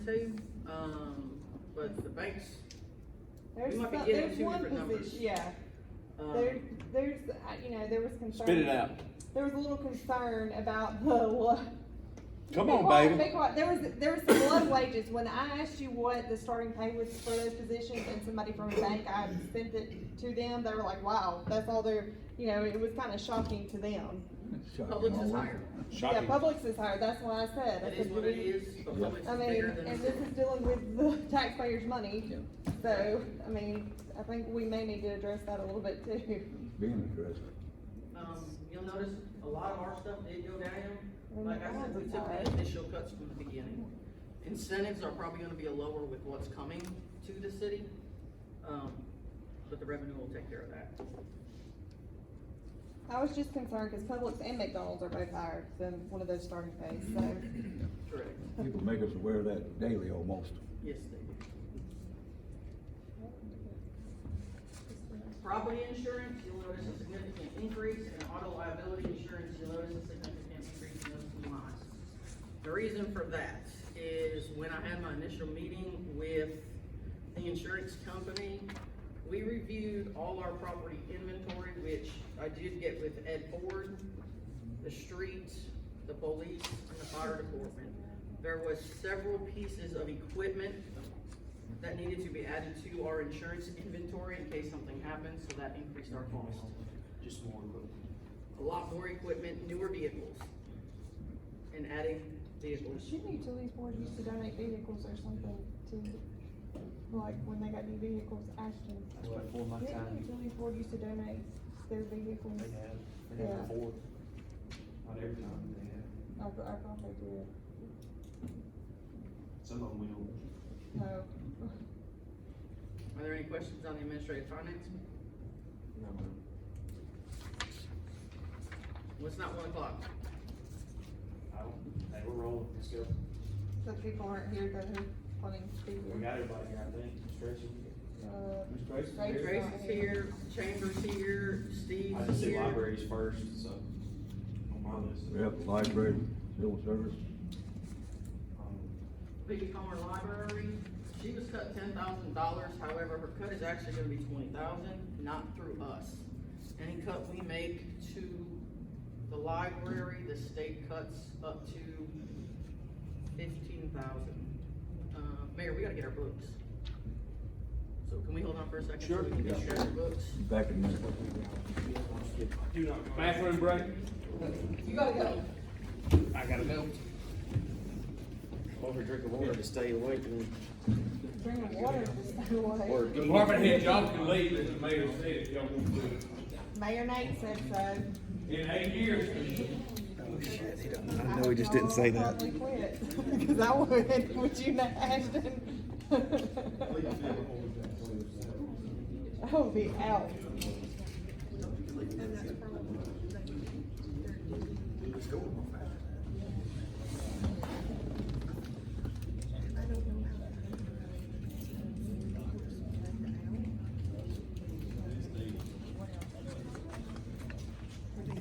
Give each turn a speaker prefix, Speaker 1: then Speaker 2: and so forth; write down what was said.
Speaker 1: two, um, but the banks,
Speaker 2: There's,
Speaker 1: might be
Speaker 2: some-
Speaker 1: getting
Speaker 2: there's
Speaker 1: two
Speaker 2: one
Speaker 1: different numbers.
Speaker 2: position, yeah, there,
Speaker 1: um,
Speaker 2: there's, uh, you know, there was concern.
Speaker 3: Spit it out.
Speaker 2: There was a little concern about the, wa-
Speaker 3: Come
Speaker 2: Be
Speaker 3: on,
Speaker 2: quiet,
Speaker 3: baby.
Speaker 2: Be quiet, there was, there was some low wages, when I asked you what the starting pay was for those positions, and somebody from a bank, I sent it to them, they were like, wow, that's all they're, you know, it was kinda shocking to them.
Speaker 1: Publix is higher.
Speaker 3: Shocking.
Speaker 2: Yeah, Publix is higher, that's why I said. I
Speaker 1: It is
Speaker 2: said,
Speaker 1: what it
Speaker 2: we-
Speaker 1: is, but
Speaker 4: Yeah.
Speaker 1: Publix
Speaker 2: I
Speaker 1: is
Speaker 2: mean,
Speaker 1: bigger than.
Speaker 2: and this is dealing with the taxpayers' money, so, I mean, I think we may need to address that a little bit too.
Speaker 4: Being addressed.
Speaker 1: Um, you'll notice a lot of our stuff did go down,
Speaker 2: Oh my
Speaker 1: like I said,
Speaker 2: God,
Speaker 1: we took
Speaker 2: sorry.
Speaker 1: the initial cuts from the beginning. Incentives are probably gonna be a lower with what's coming to the city, um, but the revenue will take care of that.
Speaker 2: I was just concerned, cause Publix and McDonald's are both higher than one of those starting pays, so.
Speaker 1: Correct,
Speaker 4: People make us aware of that daily almost.
Speaker 1: yes, they do. Property insurance, you'll notice a significant increase, and auto liability insurance, you'll notice a significant increase in those two lines. The reason for that is when I had my initial meeting with the insurance company, we reviewed all our property inventory, which I did get with Ed Ford, the streets, the police, and the fire department. There was several pieces of equipment that needed to be added to our insurance inventory in case something happens, so that increased our cost.
Speaker 5: Just more equipment.
Speaker 1: A lot more equipment, newer vehicles, and adding vehicles.
Speaker 2: Shouldn't the utilities board used to donate vehicles or something to, like, when they got new vehicles, Ashton?
Speaker 5: That's before my
Speaker 2: Didn't the
Speaker 5: time. Oh,
Speaker 2: utilities board used to donate their vehicles?
Speaker 5: They have, they
Speaker 2: Yeah.
Speaker 5: have before. Not every time they have.
Speaker 2: Oh, I, I thought they did,
Speaker 5: Some of them we don't.
Speaker 2: no.
Speaker 1: Are there any questions on the administrative finance? Well, it's not one o'clock.
Speaker 5: I don't, they were rolling, let's go.
Speaker 2: So people aren't here that are wanting to be
Speaker 5: We
Speaker 2: here.
Speaker 5: got everybody here, I think, stretching.
Speaker 2: Uh,
Speaker 5: Ms. Grace is
Speaker 2: Grace-
Speaker 5: here.
Speaker 1: Grace is here, Chambers here, Steve's
Speaker 5: I just did
Speaker 1: here.
Speaker 5: libraries first, so. On my list.
Speaker 4: We have the library, civil service,
Speaker 5: Um,
Speaker 1: Vicky Comer Library, she was cut ten thousand dollars, however, her cut is actually gonna be twenty thousand, not through us. Any cut we make to the library, the state cuts up to fifteen thousand. Uh, Mayor, we gotta get our books. So can we hold on for a second?
Speaker 3: Sure.
Speaker 1: So we can get our books.
Speaker 4: back in a minute.
Speaker 5: Do not go.
Speaker 3: Bathroom break?
Speaker 2: You gotta go.
Speaker 5: I gotta go. Over drink of water to stay awake and.
Speaker 2: Bring the water, just stay
Speaker 5: Or
Speaker 2: away.
Speaker 5: get-
Speaker 6: Department head, y'all can leave, as the mayor said, if y'all want to.
Speaker 2: Mayor Nate said so.
Speaker 6: In eight years,
Speaker 2: I know he just didn't say that. Cause I would, would you not, Ashton? I would be out.